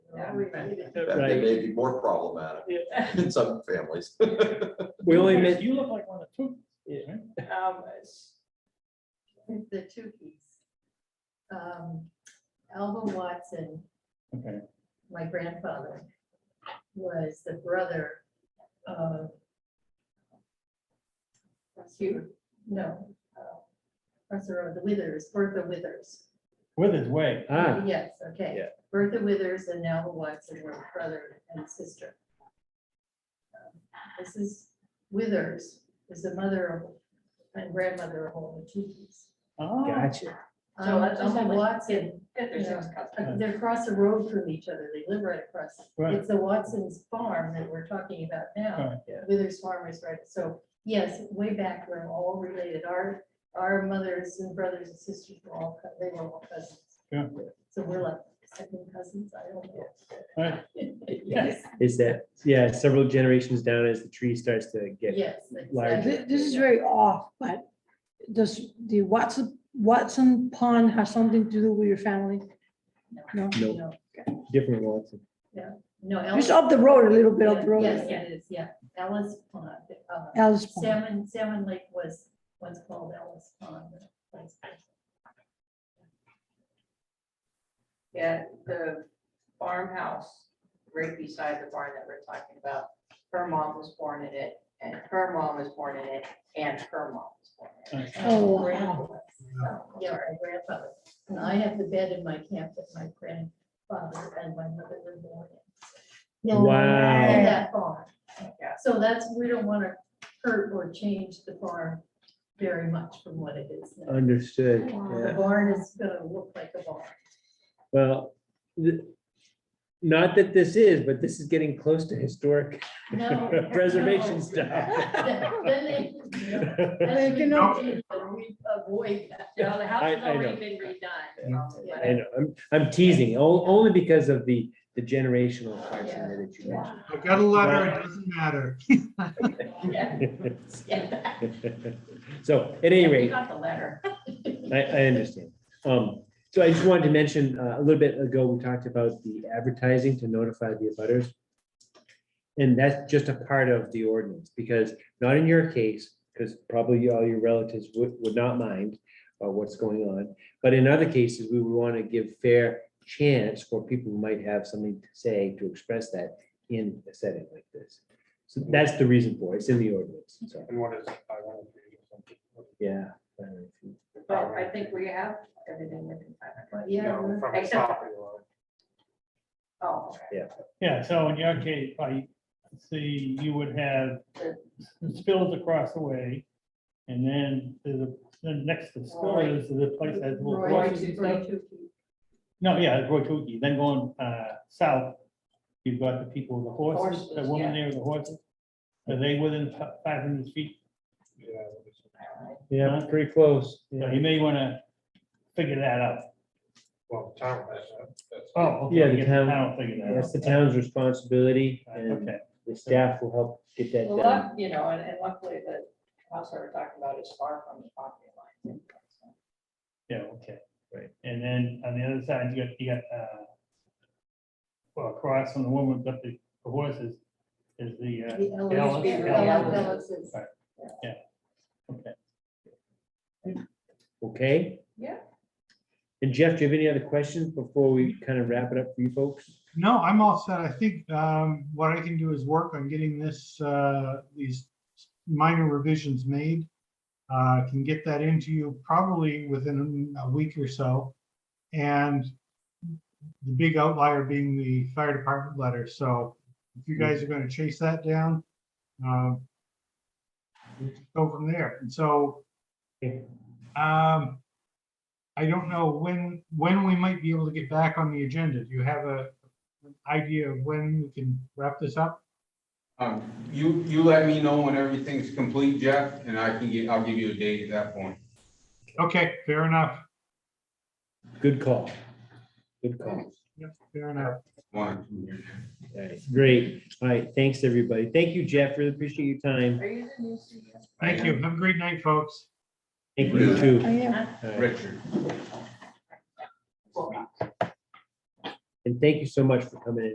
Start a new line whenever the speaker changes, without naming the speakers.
that remains.
That
That
Right.
may be more problematic in some families.
We only
You-
made,
You look like one of two. right?
Um, it's-
The two keys. Um, Alvin Watson,
Okay,
my grandfather, was the brother of Hugh, no, uh, Professor of the Withers, Bertha Withers.
with his way.
ah,
Yes, okay.
Yeah.
Bertha Withers and Alvin Watson were brother and sister. Mrs. Withers is the mother of, and grandmother of all the Tukis.
Oh,
gotcha.
So
Um,
that's just
Alvin
like-
Watson
yeah, there's those cousins.
Uh, They're across the road from each other. They live right across.
Right.
It's the Watson's farm that we're talking about now.
Right.
Yeah.
Withers Farm is right. So yes, way back, we're all related. Our, our mothers and brothers and sisters were all, cou- they were all cousins.
Yeah.
So we're like second cousins. I don't know.
Right.
Yes,
Is that, yeah, several generations down as the tree starts to get,
yes.
Large.
exactly.
Th- This is very off, but does the Watson, Watson pond have something to do with your family?
no,
No,
No,
different ones.
no. Alice-
it's up the road, a little bit up the
Yes,
road.
it is, yeah. Ellis Pond. uh,
Alice Pond.
Salmon, Salmon Lake was once called Ellis Pond. That's-
Yeah, the farmhouse right beside the barn that we're talking about, her mom was born in it, and her mom was born in it, and her mom was born in it.
okay.
Oh,
Her
wow.
grandfather.
Yeah, my grandfather. And I have the bed in my camp that my grandfather and my mother were born in.
No Wow. way.
In that barn.
Yeah.
So that's, we don't want to hurt or change the barn very much from what it is. now.
Understood,
The
yeah.
barn is going to look like a barn.
Well, th- not that this is, but this is getting close to historic
No.
preservation
no.
stuff.
Then they, no,
They
that's
can
what we do, we avoid that.
No, the house
I-
has
I know.
already been redone. Um, so,
I know, I'm, I'm teasing, o- only because of the, the generational question that you mentioned.
I got a letter, it doesn't matter.
but- Yeah, yeah.
So at any
We
rate,
got the letter.
I, I understand. Um, so I just wanted to mention, uh, a little bit ago, we talked about the advertising to notify the abutters. And that's just a part of the ordinance, because not in your case, because probably all your relatives would, would not mind uh, what's going on. But in other cases, we would want to give fair chance for people who might have something to say, to express that in a setting like this. So that's the reason for it. It's in the ordinance, so,
And what is it? I want to read something.
yeah.
But I think we have everything within five hundred.
Yeah.
No, from the
Except-
property line.
Oh, okay.
Yeah, so in your case, I see you would have spills across the way. And then there's a, then next to spillers, the place that has little
Roy-
horses and
Roy
stuff.
Tukey.
No, yeah, it's Roy Tukey. Then going uh, south, you've got the people with the horses, the
Horses,
woman
yeah.
there with the horses. Are they within five hundred feet?
Yeah.
Yeah, pretty close.
So you may want to figure that out.
Well, the town has that. That's-
Oh, okay,
Yeah, the
I guess
town-
I'll figure that out.
That's the town's responsibility and
Okay,
the staff will help get that
Well,
done.
luck- you know, and and luckily the house that we're talking about is far from the property line. so.
yeah, okay.
Right.
And then on the other side, you got, you got, uh, well, across from the woman, but the the horses is the, uh,
The
Yeah,
Ellis-
yeah,
Ellis-
yeah.
Ellis is-
okay.
Okay?
Yeah.
And Jeff, do you have any other questions before we kind of wrap it up for you folks?
No, I'm all set. I think um, what I can do is work on getting this, uh, these minor revisions made. Uh, Can get that into you probably within a week or so. And the big outlier being the fire department letter. So if you guys are going to chase that down, uh, go from there. And so
Okay.
um, I don't know when, when we might be able to get back on the agenda. Do you have a, idea of when we can wrap this up?
Um, You, you let me know when everything's complete, Jeff, and I can get, I'll give you a date at that point.
Okay, fair enough.
Good call. Good call.
Yep, Fair enough.
One or two years.
All right, great. All right, thanks, everybody. Thank you, Jeff. Really appreciate your time.
Are you the new CEO?
Thank you. Have a great night, folks.
Thank you too.
I am.
All right.
Richard.
Well,
And thank you so much for coming in.